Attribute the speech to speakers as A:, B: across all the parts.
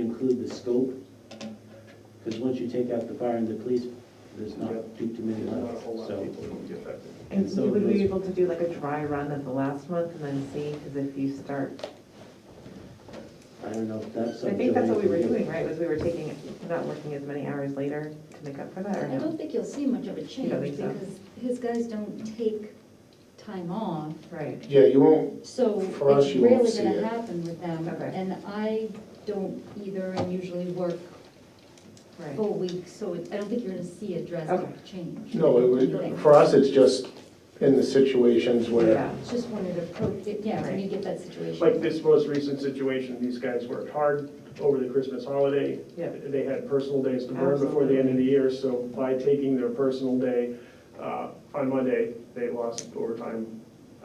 A: include the scope? Because once you take out the fire and the police, there's not too too many
B: There's not a
A: left,
B: whole lot of
A: so.
B: people who would be affected.
A: And so
C: Would we
A: those-
C: be able to do like a dry run at the last month and then see, because if you start,
A: I don't know if that's.
C: I
A: up
C: think
A: to
C: that's what we were
A: Lance to do.
C: doing, right, was we were taking, not working as many hours later to make up for that, or
D: I
C: no?
D: don't think you'll see much of a change
C: think so?
D: because his guys don't take time off.
C: Right,
B: Yeah, you won't,
D: So
B: For us,
D: it's
B: you won't
D: rarely
B: see it.
D: gonna happen with them.
C: Okay.
D: And I don't either and usually work
C: right.
D: full weeks, so it- I don't think you're gonna see a
C: Okay.
D: drastic change.
B: no, it
D: Okay.
B: was, for us, it's just in the situations where,
C: Yeah,
D: It's Just wanted to approach, it. yeah, when you get that
E: Like
D: situation.
E: this most recent situation, these guys worked hard over the Christmas holiday.
C: yeah,
E: They had personal days to burn before the end of the year, so by taking their personal day uh, on Monday, they lost overtime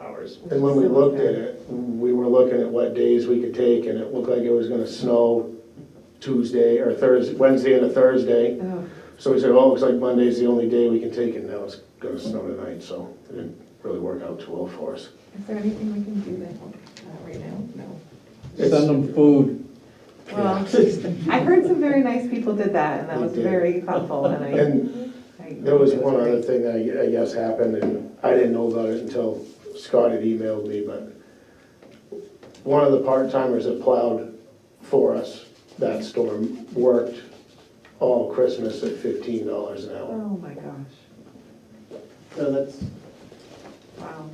E: hours.
B: and when we looked at it, we were looking at what days we could take, and it looked like it was gonna snow Tuesday or Thursday, Wednesday and a Thursday.
C: oh,
B: So we said, oh, looks like Monday's the only day we can take it, now it's gonna snow tonight, so it didn't really work out too well for us.
C: is there anything we can do then, uh, right now? No.
F: Send them food.
C: Well, I heard some very nice people did that, and that was
B: They did.
C: very thoughtful, and I.
B: And
C: I-
B: There was
C: it
B: one other
C: great.
B: thing that I I guess happened, and I didn't know about it until Scott had emailed me, but one of the part-timers that plowed for us that storm worked all Christmas at fifteen dollars an hour.
C: Oh, my gosh,
A: So that's,
C: wow,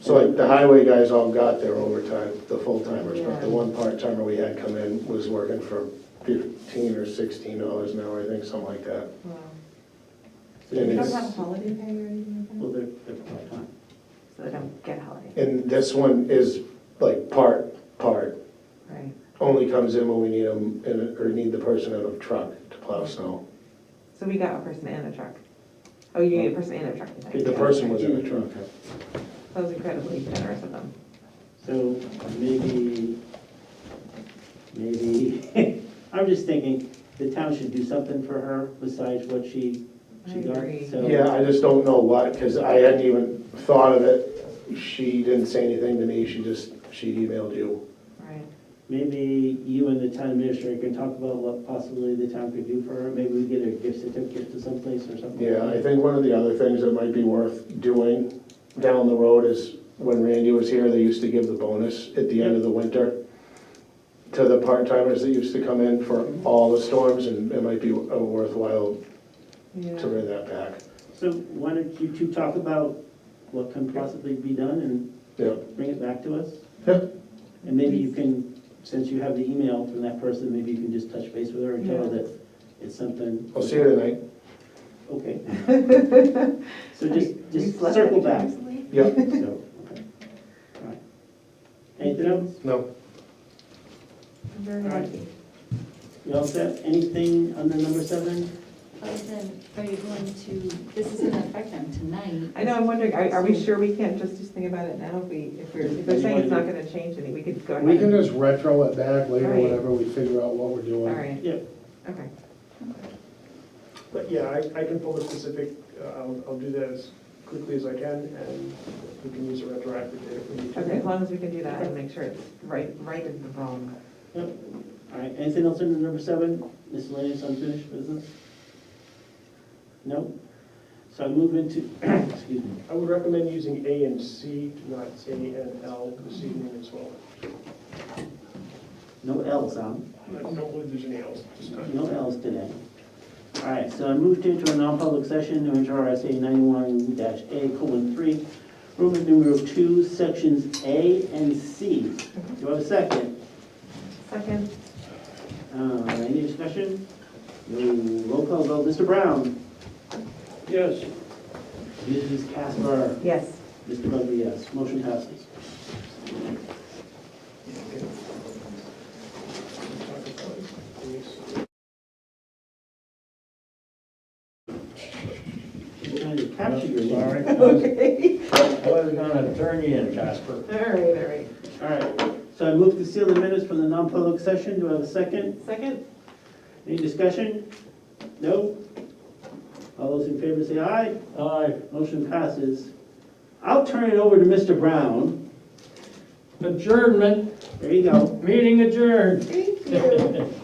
B: So like the highway guys all got their overtime, the full-timers, but
C: Yeah.
B: the one part-timer we had come in was working for fifteen or sixteen dollars an hour, I think, something like that.
C: wow.
B: And
C: They don't
B: it's-
C: have holiday pay or anything like that?
A: well, they're, they're part-time.
C: So they don't get holiday,
B: And this one is like part, part,
C: right,
B: only comes in when we need them, in- or need the person in a truck to plow snow.
C: so we got a person and a truck. Oh, you need a person and a truck. tonight.
B: The person was in a truck.
C: That was incredibly generous of them.
A: So maybe, maybe, I'm just thinking, the town should do something for her besides what she,
C: I
A: she got.
C: agree.
A: So
B: Yeah, I just don't know what, because I hadn't even thought of it. She didn't say anything to me, she just, she emailed you.
C: Right.
A: Maybe you and the town administrator can talk about what possibly the town could do for her. Maybe we get a gift certificate to someplace or something.
B: Yeah, I think one of the other things that might be worth doing down the road is, when Randy was here, they used to give the bonus at the end of the winter to the part-timers that used to come in for all the storms, and it might be worthwhile to
C: Yeah.
B: bring that back.
A: So why don't you two talk about what can possibly be done
B: Yeah.
A: and bring it back to us?
B: Yeah.
A: And maybe you can, since you have the email from that person, maybe you can just touch base with her and tell her
C: Yeah.
A: that it's something.
B: I'll see you tonight.
A: Okay. So just, just
C: We've left
A: circle
C: it
A: back.
C: recently.
B: Yeah.
A: So, okay. All right. Anything else?
B: No.
C: I'm very
A: All right.
C: lucky.
A: You all set? Anything under number seven?
D: Other than, are you going to, this is gonna affect them tonight.
C: I know, I'm wondering, are, are we sure we can't just do something about it now if we, if we're, if they're saying it's not gonna change any, we could go ahead?
G: We can just retro it back later,
C: Right.
G: whenever we figure out what we're
C: All
G: doing.
C: right,
A: Yeah.
C: okay.
E: But yeah, I, I can pull the specific, uh, I'll, I'll do that as quickly as I can, and we can use a retroactive date if we need to.
C: Okay, as long as we can do that and make sure it's right, right in the wrong.
A: Yep. All right, anything else under number seven, miscellaneous unfinished business? No? So I move into, excuse me,
E: I would recommend using A and C, not A and L this evening as well.
A: no L's on,
E: I don't believe there's any L's this time.
A: no L's today. All right, so I moved into a non-public session, New Hampshire RSA ninety-one dash A colon three, Roman numeral two, sections A and C. Do I have a second?
C: Second,
A: Uh, any discussion? No, roll call vote, Mr. Brown? Yes. Mrs. Casper?
C: yes.
A: Mr. Bugby, yes. Motion passes. I'm trying to capture your name.
F: Sorry.
C: Okay,
F: I was gonna turn you in, Casper.
C: all right, all right.
A: All right, so I move to seal the minutes from the non-public session. Do I have a second?
C: Second?
A: Any discussion? No? All those in favor say aye.
F: Aye.
A: Motion passes. I'll turn it over to Mr. Brown.
F: Adjournment,
A: There you go.
F: meeting adjourned.
C: Thank you.